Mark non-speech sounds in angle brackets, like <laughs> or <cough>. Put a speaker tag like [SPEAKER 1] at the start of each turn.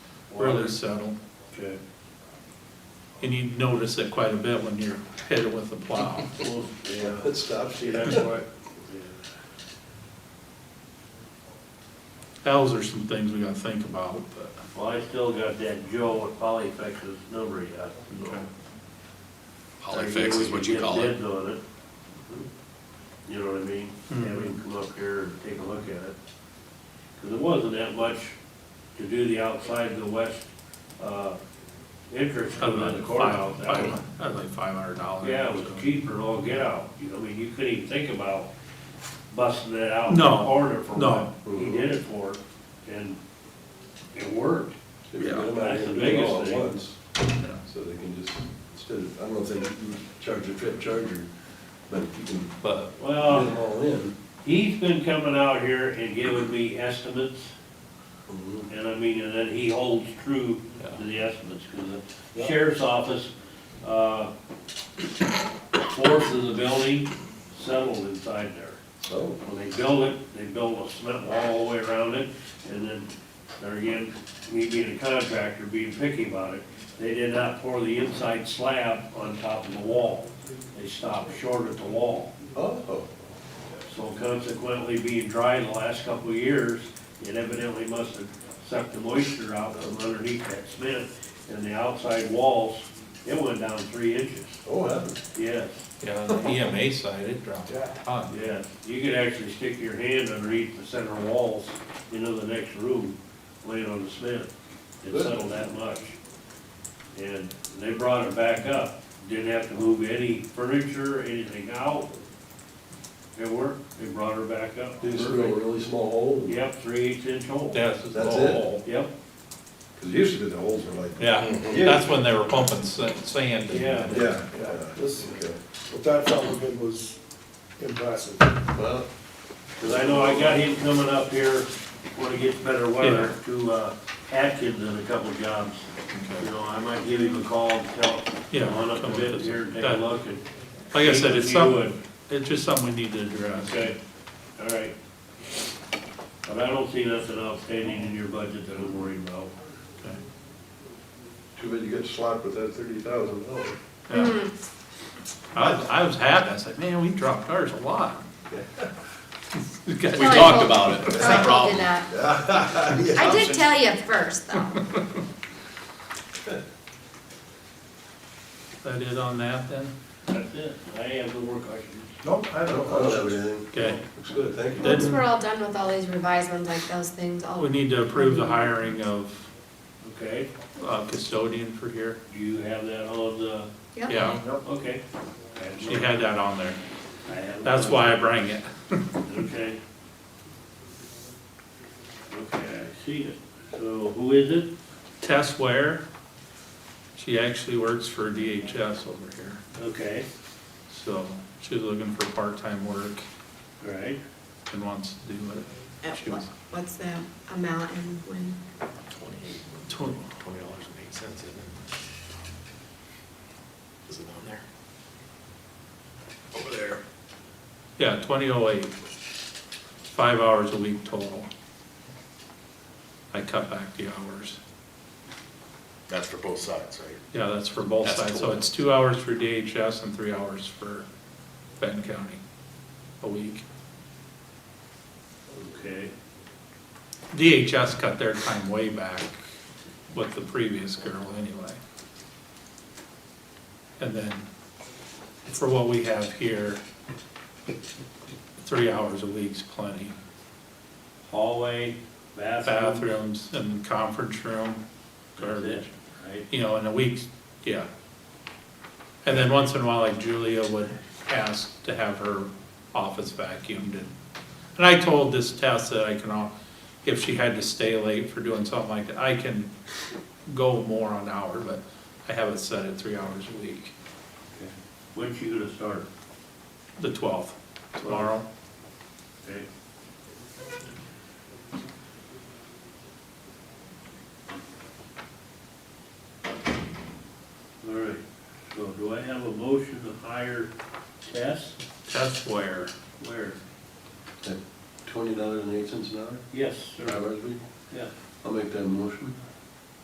[SPEAKER 1] really settle.
[SPEAKER 2] Okay,
[SPEAKER 1] And you notice it quite a bit when you're hit with the
[SPEAKER 3] <laughs>
[SPEAKER 1] plow.
[SPEAKER 2] well, yeah,
[SPEAKER 4] It stops you.
[SPEAKER 2] that's why, yeah.
[SPEAKER 1] Those are some things we gotta think about, but,
[SPEAKER 2] Well, I still got that Joe at Polyfix's number yet, so.
[SPEAKER 1] Okay.
[SPEAKER 5] Polyfix is what you call
[SPEAKER 2] Get
[SPEAKER 5] it.
[SPEAKER 2] bids on it. You know what I mean?
[SPEAKER 1] Mhm.
[SPEAKER 2] Have him come up here and take a look at it. Cause it wasn't that much to do the outside of the west, uh, entrance
[SPEAKER 1] I'd
[SPEAKER 2] coming out of the
[SPEAKER 1] like
[SPEAKER 2] courthouse.
[SPEAKER 1] five,
[SPEAKER 2] That was-
[SPEAKER 1] five, I'd like five hundred dollars.
[SPEAKER 2] Yeah, it was cheaper than all get out, you know, I mean, you couldn't even think about busting it out in the
[SPEAKER 1] No,
[SPEAKER 2] corner for
[SPEAKER 1] no.
[SPEAKER 2] what he did it for, and it worked.
[SPEAKER 4] If you
[SPEAKER 5] Yeah.
[SPEAKER 4] get them out
[SPEAKER 2] That's
[SPEAKER 4] here
[SPEAKER 2] the
[SPEAKER 4] and do it all
[SPEAKER 2] biggest
[SPEAKER 4] at
[SPEAKER 2] thing.
[SPEAKER 4] once, so they can just, instead of, I don't know if they can charge a trip charger, but if you can get
[SPEAKER 1] But,
[SPEAKER 2] Well,
[SPEAKER 4] them all in.
[SPEAKER 2] He's been coming out here and giving me estimates,
[SPEAKER 4] mhm.
[SPEAKER 2] and I mean, and then he holds true to the estimates, because the sheriff's office, uh, fourth of the building settled inside there.
[SPEAKER 4] So,
[SPEAKER 2] When they build it, they build a cement wall all the way around it, and then, there again, me being a contractor, being picky about it, they did not pour the inside slab on top of the wall. They stopped short at the wall.
[SPEAKER 4] oh,
[SPEAKER 2] So consequently, being dry the last couple of years, it evidently must have sucked the moisture out from underneath that cement, and the outside walls, it went down three inches.
[SPEAKER 4] oh, heaven.
[SPEAKER 2] Yes,
[SPEAKER 1] yeah, the EMA side, it dropped a ton.
[SPEAKER 2] yes. You could actually stick your hand underneath the center walls into the next room, laying on the cement. It settled that much. And they brought it back up, didn't have to move any furniture, anything out. It worked, they brought her back up.
[SPEAKER 4] They just drill a really small hole.
[SPEAKER 2] Yep, three eighths inch hole.
[SPEAKER 1] Yeah, it's just a
[SPEAKER 4] That's
[SPEAKER 1] hole.
[SPEAKER 2] Yep,
[SPEAKER 4] Cause usually the holes were like.
[SPEAKER 1] Yeah, that's when they were pumping sa- sand. in.
[SPEAKER 2] Yeah.
[SPEAKER 4] Yeah,
[SPEAKER 6] This-
[SPEAKER 4] yeah. Okay.
[SPEAKER 6] What that fellow did was impressive.
[SPEAKER 4] Well,
[SPEAKER 2] cause I know I got him coming up here when it gets better weather to, uh, Atkins in a couple jobs. You know, I might give him a call and tell,
[SPEAKER 1] Yeah,
[SPEAKER 2] come on up
[SPEAKER 1] come
[SPEAKER 2] a
[SPEAKER 1] with
[SPEAKER 2] bit
[SPEAKER 1] us.
[SPEAKER 2] here and take a
[SPEAKER 1] That-
[SPEAKER 2] look and.
[SPEAKER 1] Like I said, it's
[SPEAKER 2] see what you
[SPEAKER 1] something, it's just something we need to
[SPEAKER 2] would.
[SPEAKER 1] address.
[SPEAKER 2] Okay, all right. But I don't see nothing outstanding in your budget that I'm worried about.
[SPEAKER 1] Okay.
[SPEAKER 4] too bad you got slapped with that thirty thousand dollars.
[SPEAKER 1] Yeah. I, was- I was happy, I said, man, we dropped ours a lot. <laughs> We got-
[SPEAKER 5] We
[SPEAKER 3] Well, I
[SPEAKER 5] talked
[SPEAKER 3] hope-
[SPEAKER 5] about it, it's a
[SPEAKER 3] Oh, he
[SPEAKER 5] problem.
[SPEAKER 3] did not. I did tell you first, though.
[SPEAKER 1] That it on that then?
[SPEAKER 2] That's it, I have no more questions.
[SPEAKER 4] Nope, I don't. I don't have anything.
[SPEAKER 1] Okay,
[SPEAKER 4] Looks good, thank you.
[SPEAKER 3] Once we're all done with all these revised ones, like those things, I'll
[SPEAKER 1] we need to approve the hiring of
[SPEAKER 2] Okay,
[SPEAKER 1] uh, custodian for here.
[SPEAKER 2] do you have that on the,
[SPEAKER 3] Yep.
[SPEAKER 1] Yeah,
[SPEAKER 2] okay.
[SPEAKER 1] she had that on there.
[SPEAKER 2] I have-
[SPEAKER 1] That's why I bring it.
[SPEAKER 2] Okay. Okay, I see it. So who is it?
[SPEAKER 1] Tess Ware, she actually works for DHS over here.
[SPEAKER 2] Okay,
[SPEAKER 1] So she's looking for part-time work
[SPEAKER 2] right.
[SPEAKER 1] and wants to do it.
[SPEAKER 3] Uh, what- What's the amount and when?
[SPEAKER 1] Tw-
[SPEAKER 5] Twenty dollars and eight cents, isn't it? Is it on there? Over there.
[SPEAKER 1] Yeah, twenty oh eight. Five hours a week total. I cut back the hours.
[SPEAKER 5] That's for both sides, right?
[SPEAKER 1] Yeah, that's for both
[SPEAKER 5] That's
[SPEAKER 1] sides, so
[SPEAKER 5] cool.
[SPEAKER 1] it's two hours for DHS and three hours for Benton County a week.
[SPEAKER 2] Okay,
[SPEAKER 1] DHS cut their time way back with the previous girl anyway. And then for what we have here, three hours a week's plenty.
[SPEAKER 2] hallway, bathroom.
[SPEAKER 1] Bathrooms and conference room,
[SPEAKER 2] That's
[SPEAKER 1] garbage.
[SPEAKER 2] it, right?
[SPEAKER 1] you know, in a week, yeah. And then once in a while, like Julia would ask to have her office vacuumed and, and I told this Tess that I can, al- if she had to stay late for doing something like that, I can go more on hour, but I have it set at three hours a week,
[SPEAKER 2] When's she gonna start?
[SPEAKER 1] the twelfth, tomorrow.
[SPEAKER 2] Okay. All right, so do I have a motion to hire Tess?
[SPEAKER 1] Tess Ware,
[SPEAKER 2] Where?
[SPEAKER 4] Twenty dollars and eight cents an hour,
[SPEAKER 2] Yes,
[SPEAKER 4] five
[SPEAKER 2] sir.
[SPEAKER 4] hours a week?
[SPEAKER 2] Yeah.
[SPEAKER 4] I'll make that motion.